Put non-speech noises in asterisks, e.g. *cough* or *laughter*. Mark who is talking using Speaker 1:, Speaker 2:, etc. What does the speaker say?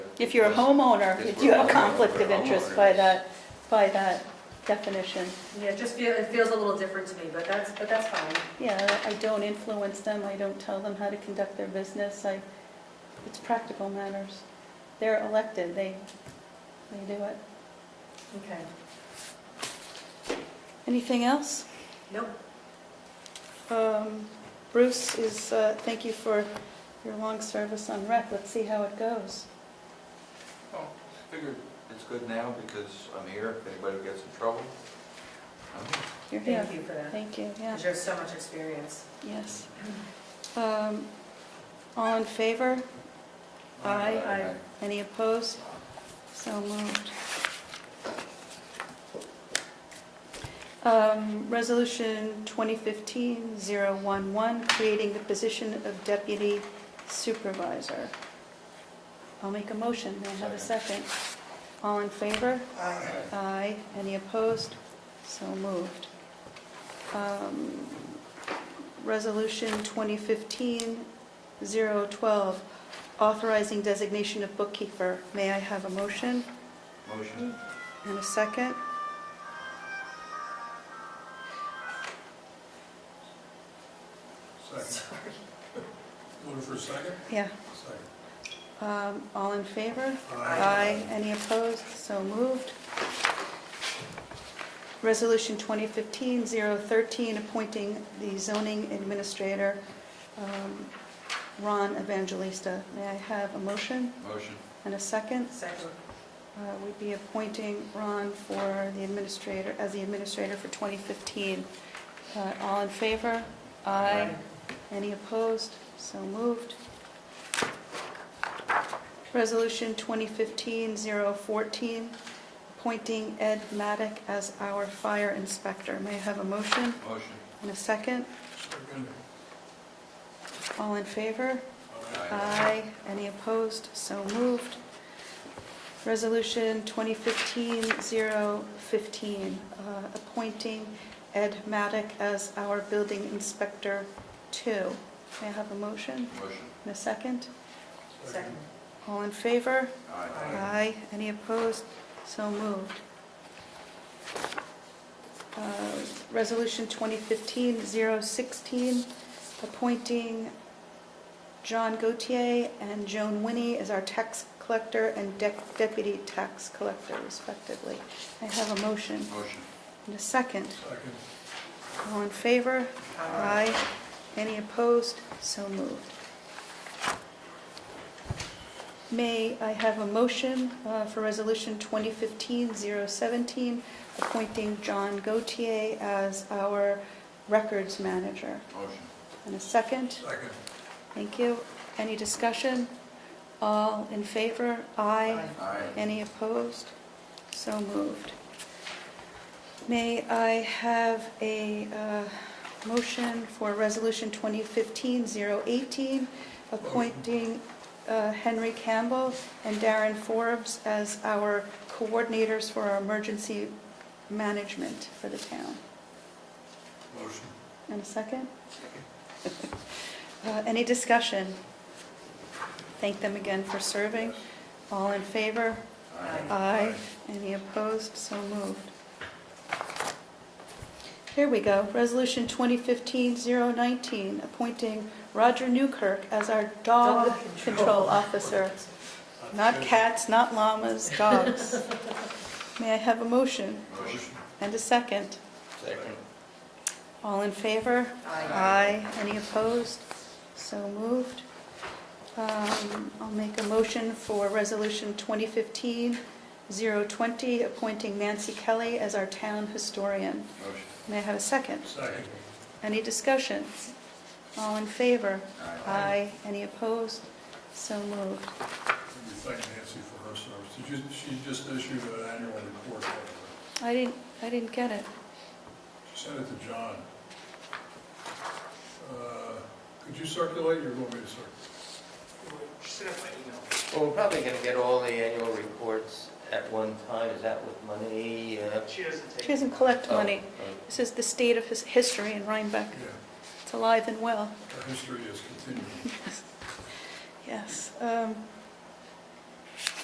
Speaker 1: If you're a homeowner,
Speaker 2: If
Speaker 1: you
Speaker 2: we're
Speaker 1: have a conflict of
Speaker 2: homeowner,
Speaker 1: interest
Speaker 2: homeowner,
Speaker 1: by
Speaker 2: yes.
Speaker 1: that, by that definition.
Speaker 3: Yeah, it just feel, it feels a little different to me, but that's, but that's fine.
Speaker 1: Yeah, I don't influence them, I don't tell them how to conduct their business, I, it's practical matters. They're elected, they, they do it.
Speaker 3: Okay.
Speaker 1: Anything else?
Speaker 3: Nope.
Speaker 1: Um, Bruce is, uh, thank you for your long service on rec, let's see how it goes.
Speaker 2: Figured it's good now because I'm here, if anybody gets in trouble. I'm here.
Speaker 1: You're here.
Speaker 3: Thank you for that,
Speaker 1: Thank you, yeah,
Speaker 3: because you have so much experience.
Speaker 1: yes. Um, All in favor? Aye.
Speaker 3: Aye.
Speaker 1: Any opposed? So moved. Um, Resolution 2015-011, creating the position of deputy supervisor. I'll make a motion, may I have a second? All in favor?
Speaker 2: Aye.
Speaker 1: Aye. Any opposed? So moved. Um, Resolution 2015-012, authorizing designation of bookkeeper. May I have a motion
Speaker 2: Motion?
Speaker 1: and a second?
Speaker 4: Second. Looking for a second?
Speaker 1: Yeah.
Speaker 4: Second.
Speaker 1: Um, All in favor?
Speaker 4: Aye.
Speaker 1: Any opposed? So moved. Resolution 2015-013, appointing the zoning administrator, um, Ron Evangelista. May I have a motion
Speaker 2: Motion.
Speaker 1: and a second?
Speaker 3: *laughs* Second,
Speaker 1: Uh, We'd be appointing Ron for the administrator, as the administrator for 2015. Uh, All in favor? Aye. Any opposed? So moved. Resolution 2015-014, appointing Ed Maddock as our fire inspector. May I have a motion
Speaker 2: Motion.
Speaker 1: and a second?
Speaker 4: Second.
Speaker 1: All in favor? Aye. Any opposed? So moved. Resolution 2015-015, uh, appointing Ed Maddock as our building inspector two. May I have a motion
Speaker 2: Motion.
Speaker 1: and a second?
Speaker 3: second,
Speaker 1: All in favor?
Speaker 2: Aye.
Speaker 1: Aye. Any opposed? So moved. Uh, Resolution 2015-016, appointing John Gautier and Joan Winnie as our tax collector and dec- deputy tax collector respectively. I have a motion
Speaker 2: Motion.
Speaker 1: and a second.
Speaker 4: Second.
Speaker 1: All in favor?
Speaker 3: Aye.
Speaker 1: Any opposed? So moved. May I have a motion uh, for Resolution 2015-017, appointing John Gautier as our records manager?
Speaker 2: Motion.
Speaker 1: And a second?
Speaker 4: Second.
Speaker 1: Thank you. Any discussion? All in favor? Aye.
Speaker 2: Aye.
Speaker 1: Any opposed? So moved. May I have a uh, motion for Resolution 2015-018, appointing uh, Henry Campbell and Darren Forbes as our coordinators for our emergency management for the town?
Speaker 4: Motion.
Speaker 1: And a second? Uh, Any discussion? Thank them again for serving. All in favor?
Speaker 2: Aye.
Speaker 1: Aye. Any opposed? So moved. Here we go. Resolution 2015-019, appointing Roger Newkirk as our dog
Speaker 3: Dog control.
Speaker 1: control officer. Not cats, not llamas, *laughs* dogs. May I have a motion
Speaker 2: Motion.
Speaker 1: and a second?
Speaker 2: Second.
Speaker 1: All in favor?
Speaker 3: aye.
Speaker 1: Aye. Any opposed? So moved. Um, I'll make a motion for Resolution 2015-020, appointing Nancy Kelly as our town historian.
Speaker 2: Motion.
Speaker 1: May I have a second?
Speaker 4: Second.
Speaker 1: Any discussion? All in favor?
Speaker 2: Aye.
Speaker 1: Aye. Any opposed? So moved.
Speaker 4: We thank Nancy for her service. Did you- She just issued an annual report.
Speaker 1: I didn't, I didn't get it.
Speaker 4: She sent it to John. Uh, Could you circulate, or want me to circulate?
Speaker 5: Well, we're probably going to get all the annual reports at one time, is that with money? uh,
Speaker 6: She doesn't take.
Speaker 1: She doesn't collect
Speaker 5: oh,
Speaker 1: money.
Speaker 5: uh,
Speaker 1: This is the state of his history in Rhinebeck.
Speaker 4: Yeah,
Speaker 1: It's alive and well. *laughs*
Speaker 4: her history is continuing.
Speaker 1: Yes. Um,